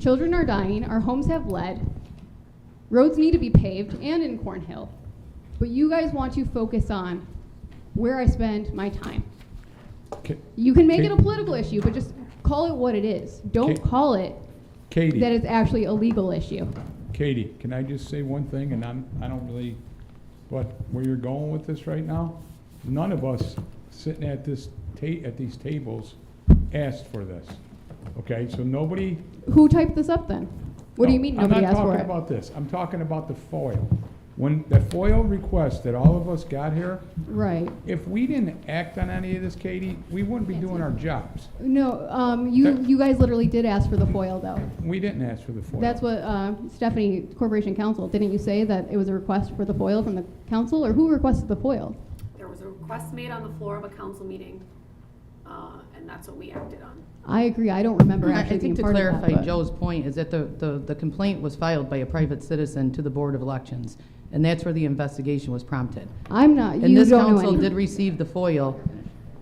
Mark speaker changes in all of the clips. Speaker 1: Children are dying, our homes have lead, roads need to be paved, and in Cornhill. But you guys want to focus on where I spend my time.
Speaker 2: Ca-
Speaker 1: You can make
Speaker 2: Ca-
Speaker 1: it a political issue, but just call it what it is. Don't
Speaker 2: Ca-
Speaker 1: call it that
Speaker 2: Katie,
Speaker 1: it's actually a legal issue.
Speaker 2: Katie, can I just say one thing, and I'm, I don't really, but where you're going with this right now, none of us sitting at this ta, at these tables asked for this, okay? So nobody.
Speaker 1: Who typed this up then? What do you
Speaker 2: No,
Speaker 1: mean nobody asked
Speaker 2: I'm
Speaker 1: for
Speaker 2: not talking
Speaker 1: it?
Speaker 2: about this, I'm talking about the FOIL. When the FOIL request that all of us got here,
Speaker 1: Right.
Speaker 2: if we didn't act on any of this, Katie, we wouldn't be doing our jobs.
Speaker 1: No, um, you,
Speaker 2: That-
Speaker 1: you guys literally did ask for the FOIL though.
Speaker 2: We didn't ask for the FOIL.
Speaker 1: That's what uh, Stephanie, Corporation Counsel, didn't you say that it was a request for the FOIL from the council, or who requested the FOIL?
Speaker 3: There was a request made on the floor of a council meeting, uh, and that's what we acted on.
Speaker 1: I agree, I don't remember
Speaker 4: I I
Speaker 1: actually being
Speaker 4: think to
Speaker 1: part of that.
Speaker 4: clarify
Speaker 1: but-
Speaker 4: Joe's point is that the, the, the complaint was filed by a private citizen to the Board of Elections, and that's where the investigation was prompted.
Speaker 1: I'm not,
Speaker 4: And
Speaker 1: you
Speaker 4: this
Speaker 1: don't know
Speaker 4: council
Speaker 1: anything.
Speaker 4: did receive the FOIL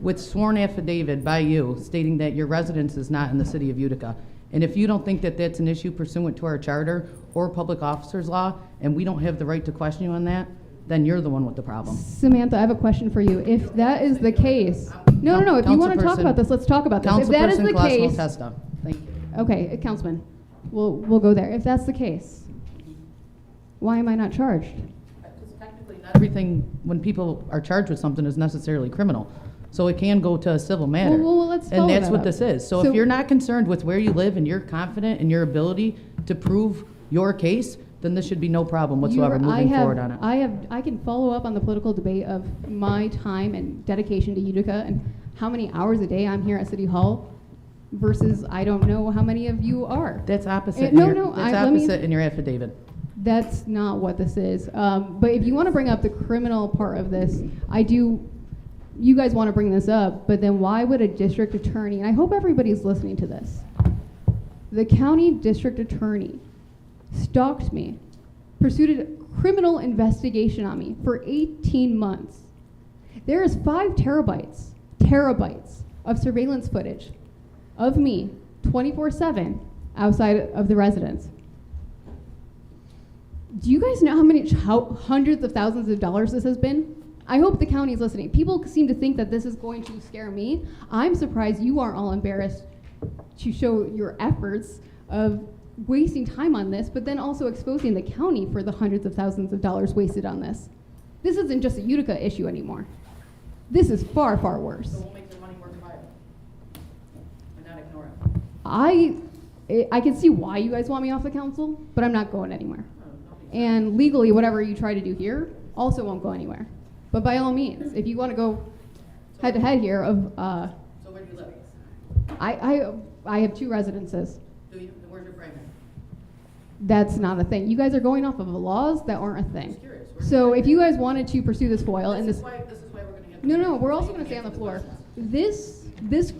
Speaker 4: with sworn affidavit by you stating that your residence is not in the city of Utica. And if you don't think that that's an issue pursuant to our charter or public officers law, and we don't have the right to question you on that, then you're the one with the problem.
Speaker 1: Samantha, I have a question for you. If that is the case, no, no, no, if you want to talk
Speaker 4: Councilperson-
Speaker 1: about this, let's talk about this. If that is
Speaker 4: Councilperson
Speaker 1: the
Speaker 4: Colasmo
Speaker 1: case,
Speaker 4: Testa, thank you.
Speaker 1: okay, uh, Councilman, we'll, we'll go there. If that's the case, why am I not charged?
Speaker 4: Not everything, when people are charged with something, is necessarily criminal. So it can go to a civil matter.
Speaker 1: Well, well, let's follow
Speaker 4: And that's
Speaker 1: that
Speaker 4: what
Speaker 1: up.
Speaker 4: this is. So
Speaker 1: So-
Speaker 4: if you're not concerned with where you live and you're confident in your ability to prove your case, then this should be no problem whatsoever
Speaker 1: You're- I
Speaker 4: moving
Speaker 1: have-
Speaker 4: forward on it.
Speaker 1: I have, I can follow up on the political debate of my time and dedication to Utica and how many hours a day I'm here at City Hall versus I don't know how many of you are.
Speaker 4: That's
Speaker 1: Eh,
Speaker 4: opposite, in
Speaker 1: no,
Speaker 4: your-
Speaker 1: no, I-
Speaker 4: that's
Speaker 1: let me-
Speaker 4: opposite in your affidavit.
Speaker 1: That's not what this is. Um, but if you want to bring up the criminal part of this, I do. You guys want to bring this up, but then why would a district attorney? And I hope everybody's listening to this. The county district attorney stalked me, pursued a criminal investigation on me for 18 months. There is five terabytes, terabytes of surveillance footage of me 24 7 outside of the residence. Do you guys know how many how hundreds of thousands of dollars this has been? I hope the county's listening. People seem to think that this is going to scare me. I'm surprised you aren't all embarrassed to show your efforts of wasting time on this, but then also exposing the county for the hundreds of thousands of dollars wasted on this. This isn't just a Utica issue anymore. This is far, far worse.
Speaker 4: make their money worthwhile and not ignore it.
Speaker 1: I, I I can see why you guys want me off the council, but I'm not going anywhere.
Speaker 4: Oh,
Speaker 1: And legally, whatever you try to do here also won't go anywhere. But by all means, if you want to go head to head here of, uh,
Speaker 4: So where do you live?
Speaker 1: I, I, I have two residences.
Speaker 4: Do you, where's your primary?
Speaker 1: That's not a thing. You guys are going off of laws that aren't a thing.
Speaker 4: curious.
Speaker 1: So if you guys wanted to pursue this foil and this,
Speaker 4: why, this is why we're gonna get.
Speaker 1: no, no, we're also going to stay on the floor. This, this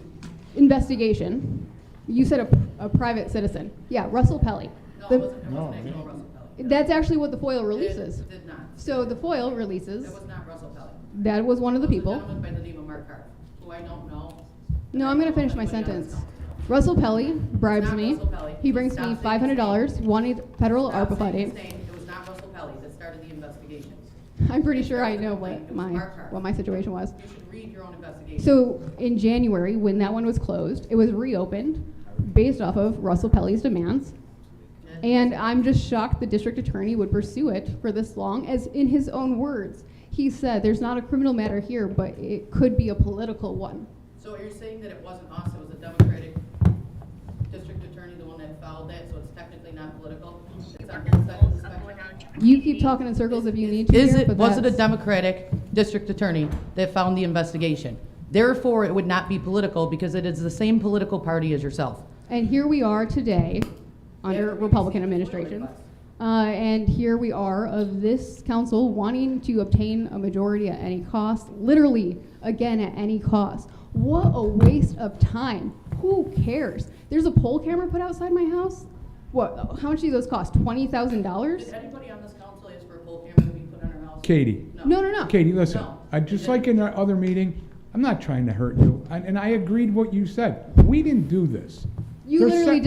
Speaker 1: investigation, you said a, a private citizen. Yeah, Russell Pelly. The-
Speaker 2: No, wasn't actual
Speaker 4: Russell
Speaker 1: That's actually what the foil releases.
Speaker 4: Did not.
Speaker 1: So the foil releases,
Speaker 4: not Russell Pelley.
Speaker 1: that was one of the
Speaker 4: There's a
Speaker 1: people.
Speaker 4: gentleman by the name of Mark Carp, who I don't know.
Speaker 1: No, I'm gonna finish my sentence. Russell Pelly bribes me. He brings me five hundred dollars, one federal ARPA
Speaker 4: Stop saying
Speaker 1: funding.
Speaker 4: his name. It was not Russell Pelley that started the investigation.
Speaker 1: I'm pretty sure I know what my, what my situation was.
Speaker 4: You should read your own investigation.
Speaker 1: So in January, when that one was closed, it was reopened based off of Russell Pelly's demands. And I'm just shocked the district attorney would pursue it for this long, as in his own words, he said, there's not a criminal matter here, but it could be a political one.
Speaker 4: So are you saying that it wasn't us, it was a Democratic district attorney, the one that filed that, so it's technically not political? It's on the second spectrum.
Speaker 1: You keep talking in circles if you need to.
Speaker 4: Is
Speaker 1: here,
Speaker 4: it,
Speaker 1: but
Speaker 4: was it a
Speaker 1: that's-
Speaker 4: Democratic district attorney that found the investigation? Therefore, it would not be political because it is the same political party as yourself.
Speaker 1: And here we are today,
Speaker 4: Yeah,
Speaker 1: under
Speaker 4: we
Speaker 1: Republican
Speaker 4: received a FOIA
Speaker 1: administrations.
Speaker 4: request.
Speaker 1: Uh, and here we are of this council wanting to obtain a majority at any cost, literally, again, at any cost. What a waste of time. Who cares? There's a poll camera put outside my house. What, how much do those cost? Twenty thousand dollars?
Speaker 4: Did anybody on this council ask for a poll camera to be put on our house?
Speaker 2: Katie.
Speaker 1: No, no, no.
Speaker 2: Katie, listen,
Speaker 4: No.
Speaker 2: I, just like in our other meeting, I'm not trying to hurt you, and, and I agreed what you said. We didn't do this.
Speaker 1: You
Speaker 2: There's
Speaker 1: literally
Speaker 2: sec-